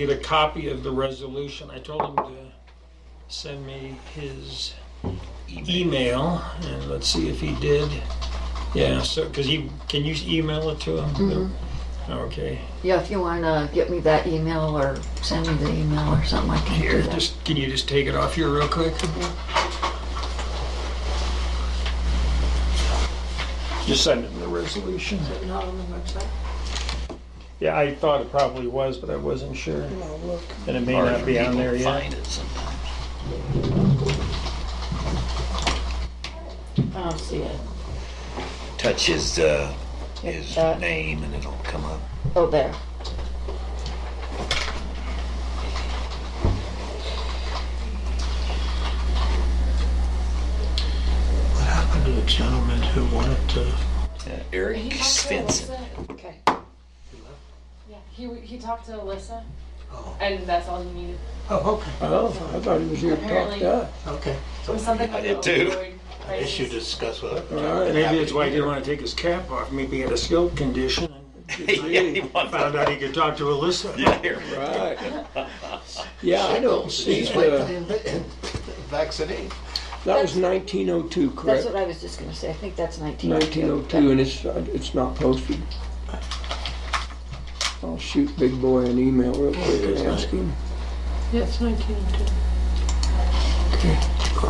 Get a copy of the resolution. I told him to send me his email, and let's see if he did. Yeah, so, because he, can you email it to him? Mm-hmm. Okay, Yeah, if you wanna get me that email or send me the email or something, I can here, do that. just, can you just take it off here real quick? Just send him the resolution. Is it not on the website? Yeah, I thought it probably was, but I wasn't sure. And it may not be on there yet. I don't see it. Touch his, uh, his Uh, name and it'll come up. Oh, there. What happened to the gentleman who wanted to? Uh, Eric He talked to Svensson. Alyssa. Okay. Yeah, he, he talked to Alyssa, Oh, and that's all he needed. oh, okay, Oh, I thought he was here to talk Apparently. to us. okay. It was something I like did the too. opioid I guess you crisis. discuss what. Maybe that's why he didn't want to take his cap off. Maybe he had a skill condition. Yeah, he wanted- Found out he could talk to Alyssa. Yeah, here. Right. Yeah, I don't see He's waiting the, him to vaccinate. that was 1902, That's correct? what I was just gonna say. I think that's nineteen oh two. 1902, and it's, it's not posted. I'll shoot Big Boy an email real quick and ask him. Yes, 1902. It was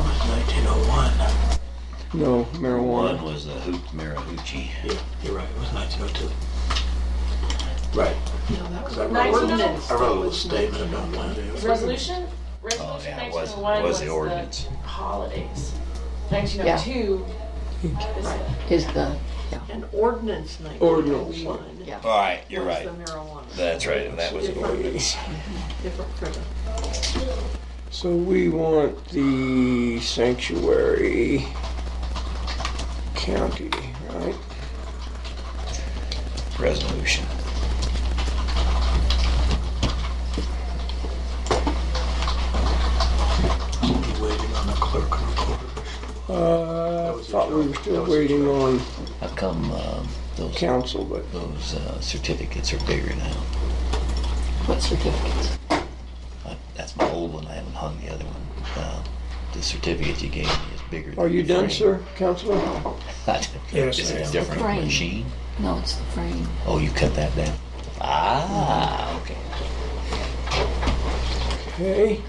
1901. No, One marijuana. was the hoop Marahoochee. You're right, it was 1902. Right. No, that 'cause was. oh I wrote- 1901. I wrote a little statement about when it was. Resolution? Oh, Resolution yeah, it was, it 1901 was the ordinance. holidays. 1902 is Is the, An ordinance 1901. Ordinance. Yeah. All right, you're was right. the marijuana. That's right, that was the ordinance. Different criminal. So we want the sanctuary county, right? Resolution. Be waiting on the clerk and recorder. Uh, I thought we were still waiting on How come, um, those, council, but those, uh, certificates are bigger now? what certificates? I- That's my old one, I haven't hung the other one. Um, The certificate you gave me is bigger. than are you the done, frame. sir, Counselor? Yes, Is I it am. a different Frame. machine? No, it's the frame. Oh, you cut that down? Ah, okay. Okay. Well,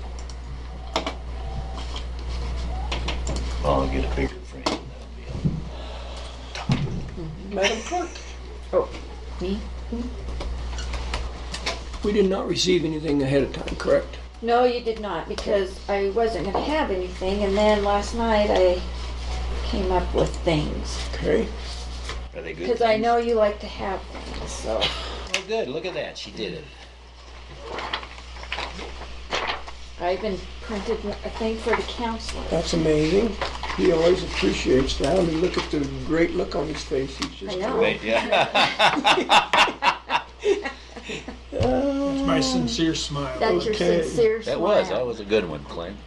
Oh, I'll get a bigger frame. That'll be all. Madam Clerk? Me? We did not receive anything ahead of time, correct? No, you did not, because I wasn't gonna have anything, and then last night I came up with things. Okay. Are they good? Because I things? know you like to have things, so. Oh, good. Look at that. She did it. I even printed a thing for the counselor. That's amazing. He always appreciates that. I mean, look at the great look on his face. He's just. I know. Wait, yeah. Uh, My sincere smile. That's your Okay. sincere smile. that was. That was a good one, Clint.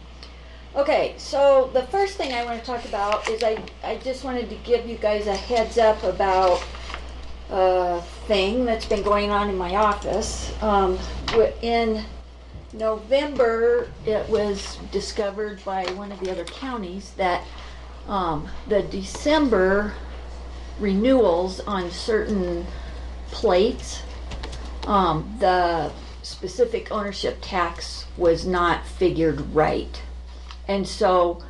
Okay, so the first thing I want to talk about is I, I just wanted to give you guys a heads up about a thing that's been going on in my office. Um, w- in November, it was discovered by one of the other counties that um, the December renewals on certain plates, um, the specific ownership tax was not figured right. And so,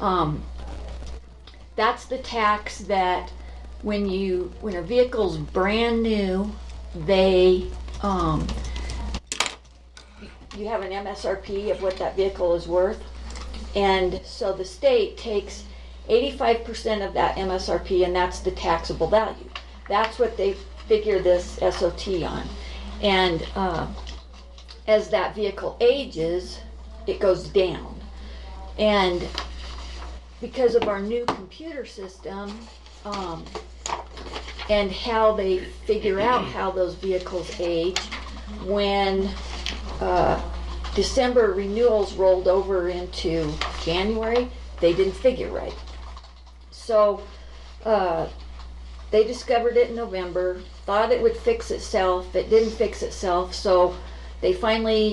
um, that's the tax that when you, when a vehicle's brand new, they, um, you have an MSRP of what that vehicle is worth. And so the state takes eighty-five percent of that MSRP and that's the taxable value. That's what they figure this SOT on. And, uh, as that vehicle ages, it goes down. And because of our new computer system, um, and how they figure out how those vehicles age, when, uh, December renewals rolled over into January, they didn't figure right. So, uh, they discovered it in November, thought it would fix itself, it didn't fix itself, so They finally